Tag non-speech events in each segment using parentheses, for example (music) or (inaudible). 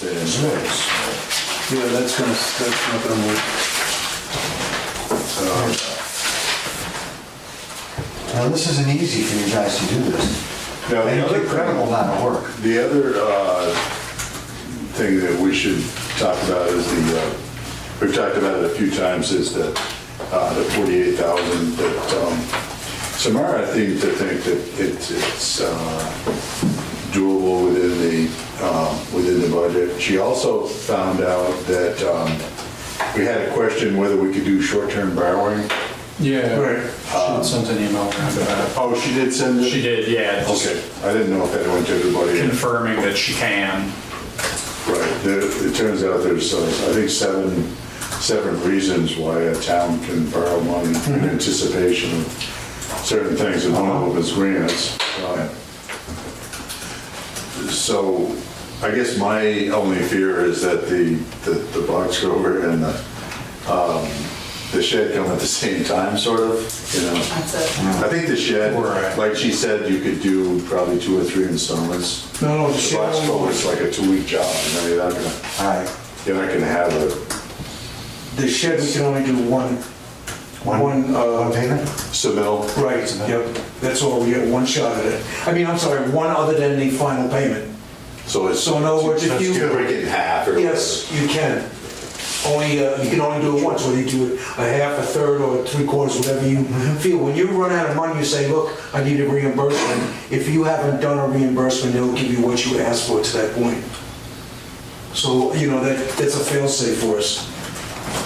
There's this. Yeah, that's gonna, that's not gonna work. Now, this isn't easy for you guys to do this. Now, the It's other incredible thing, amount of work. the other uh, thing that we should talk about is the, uh, we've talked about it a few times, is that uh, the 48,000 that, um, Samara, I think, to think that it's, it's uh, doable within the, um, within the budget. She also found out that um, we had a question whether we could do short-term borrowing. Yeah. She sent an email around about Oh, she did send it. it? Um, She did, yeah, just Okay, I didn't know if that went to everybody. confirming that she can. Right, there, it turns out there's, uh, I think, seven, seven reasons why a town can borrow money in anticipation of certain things, and one of them is grants. Uh, So I guess my only fear is that the, the- the box cover and the, um, the shed come at the same time, sort of, you know? That's it. I think the shed, Right. like she said, you could do probably two or three installments. No, no, the The shed box only- culvert is like a two-week job, and then you're not gonna, All right. you're not gonna have a, The shed, we can only do one, one, One uh, payment? submittal. right, yep, that's all, we get one shot at it. I mean, I'm sorry, one other than the final payment. So it's. So in other words, if That's you- good. Break it in half or. Yes, you can. Only, uh, you can only do it once, whether you do it a half, a third, or three quarters, whatever you Mm-hmm. feel. When you run out of money, you say, look, I need a reimbursement. If you haven't done a reimbursement, they'll give you what you asked for to that point. So, you know, that, that's a fail-safe for us.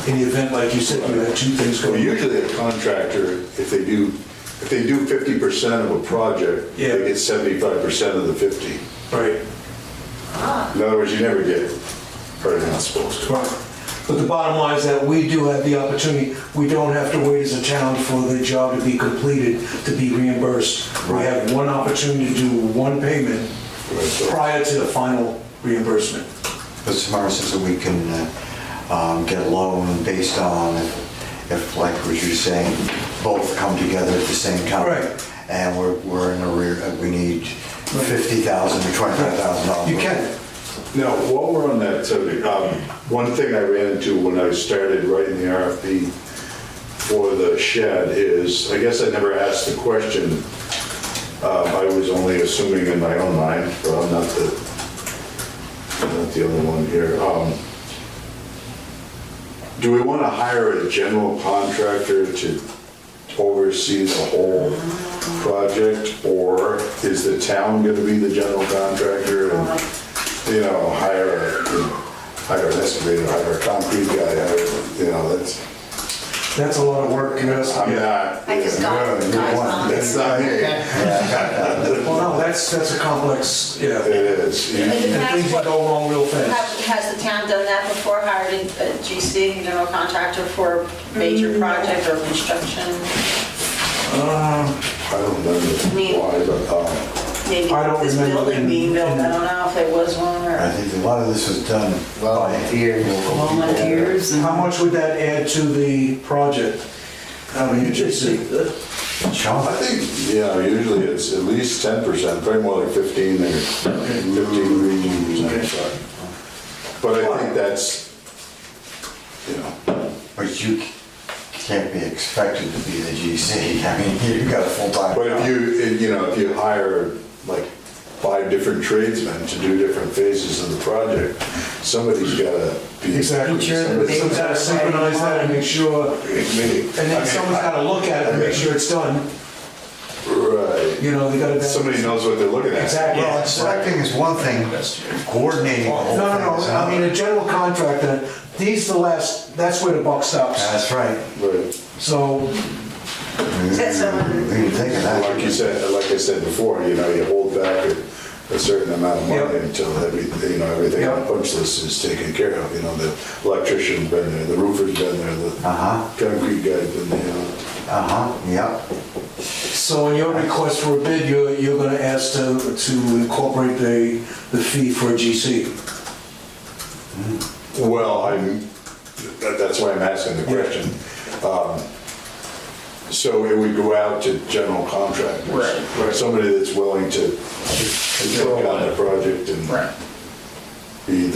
In the event, like you said, you have two things Well, going. Usually a contractor, if they do, if they do fifty percent of a project, Yeah. they get seventy-five percent of the fifty. Right. In other words, you never get, or you're not supposed to. Right. But the bottom line is that we do have the opportunity, we don't have to wait as a town for the job to be completed, to be reimbursed. We have one opportunity to do one payment Right, so- prior to the final reimbursement. But Samara says that we can uh, um, get a loan based on if, if, like what you're saying, both come together at the same time. Right. And we're, we're in a rear, we need 50,000 or 25,000 dollars. You can, Now, while we're on that subject, um, one thing I ran into when I started writing the RFP for the shed is, I guess I never asked the question. Um, I was only assuming in my own mind, but I'm not the, I'm not the only one here. Um, Do we want to hire a general contractor to oversee the whole project? Or is the town going to be the general contractor Um, and you know, hire, a- you know, hire an excavator, hire a concrete guy, hire, you know, that's, that's a lot of work, you know, I'm so- not. I just got No, guys you're one- on. That's not me. Well, no, that's, that's a complex, (laughs) It yeah. is. You- And things can go wrong real fast. Have- Has the town done that before, hired a a GC, general contractor for Mm. major project or construction? I don't know why, but, um, Maybe I don't this remember building in- being built, I in- don't know if it was one I or think a lot of this was done by volunteers and How much would that add to the project? I mean, you just see, Chunk. I think, yeah, usually it's at least ten percent, probably more like fifteen or fifteen percent. But I think that's, you know, But you can't be expected to be the GC. I mean, (laughs) you've got a full-time. but if job. you, if, you know, if you hire like five different tradesmen to do different phases of the project, somebody's gotta be. Exactly. Make sure that they- Someone's gotta synchronize that and make sure, and then someone's gotta look at it and make sure it's done. Right. You know, they gotta. Somebody knows what they're looking at. Exactly. Well, No, and selecting is one thing, coordinating the whole no, thing no, is I mean, another. a general contractor, these the last, that's where the buck stops. That's right. Right. So, Is that We someone- didn't think of that. Like you said, like I said before, you know, you hold back a a certain amount of money Yep. until everything, you know, everything on the punch list is taken care of. You know, the electrician's been there, the roofer's been there, the Uh-huh. concrete guy's been there. Uh-huh, yep. so in your request for a bid, you're, you're gonna ask to, to incorporate the, the fee for a GC. Well, I'm, that- that's why I'm asking the question. Um, So it would go out to general contractors? Right. Somebody that's willing to to take on the project and be